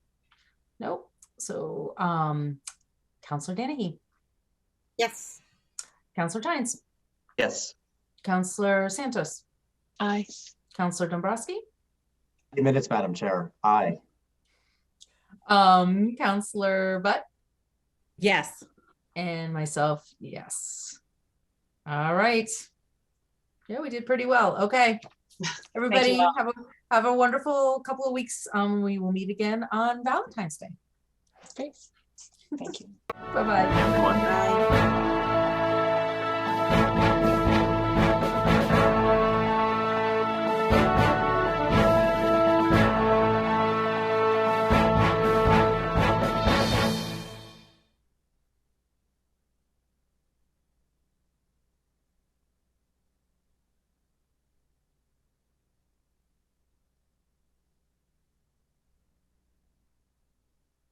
Nope. So, um, Counselor Danahy, Yes. Counselor Tynes, Yes. Counselor Santos, Aye. Counselor Dombrowski, Eight minutes, Madam Chair. Aye. um, Counselor Butt, Yes. and myself, yes. All right. Yeah, we did pretty well. Okay. Everybody all. have a, have a wonderful couple of weeks. Um, we will meet again on Valentine's Day. Great. Thank you. Bye-bye. Everyone. Bye.